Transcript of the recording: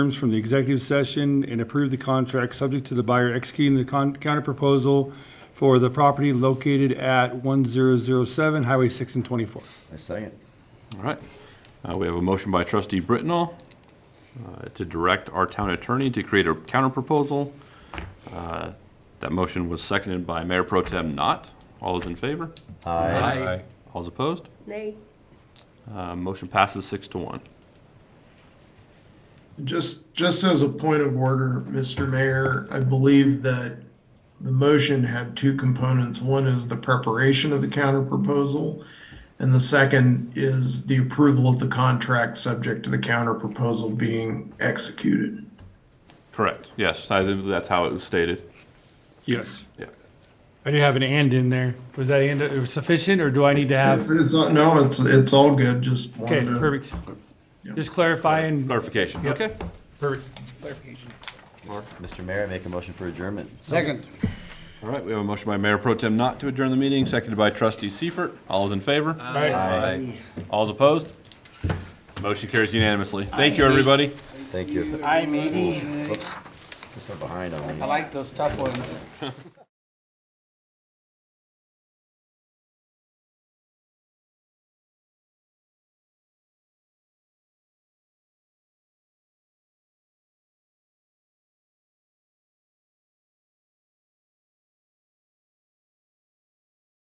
terms from the executive session and approve the contract subject to the buyer executing the con- counterproposal for the property located at 1007 Highway 6 and 24. I second. All right. Uh, We have a motion by trustee Britnall uh, to direct our town attorney to create a counterproposal. Uh, That motion was seconded by Mayor Pro Tem Not. All is in favor? Aye. All is opposed? Nay. Uh, Motion passes six to one. Just, just as a point of order, Mr. Mayor, I believe that the motion had two components. One is the preparation of the counterproposal, and the second is the approval of the contract subject to the counterproposal being executed. Correct. Yes, I think that's how it was stated. Yes. Yeah. I didn't have an "and" in there. Was that "and" sufficient, or do I need to It's, have? it's, no, it's, it's all good, just Okay, wanted to. perfect. Just clarifying, Clarification. Okay. perfect. Mr. Mayor, I make a motion for adjournment. Second. All right, we have a motion by Mayor Pro Tem Not to adjourn the meeting, seconded by trustee Seifert. All is in favor? Aye. All is opposed? Motion carries unanimously. Thank you, everybody. Thank you. I'm eighty. Oops. I'm behind on these. I like those tough ones.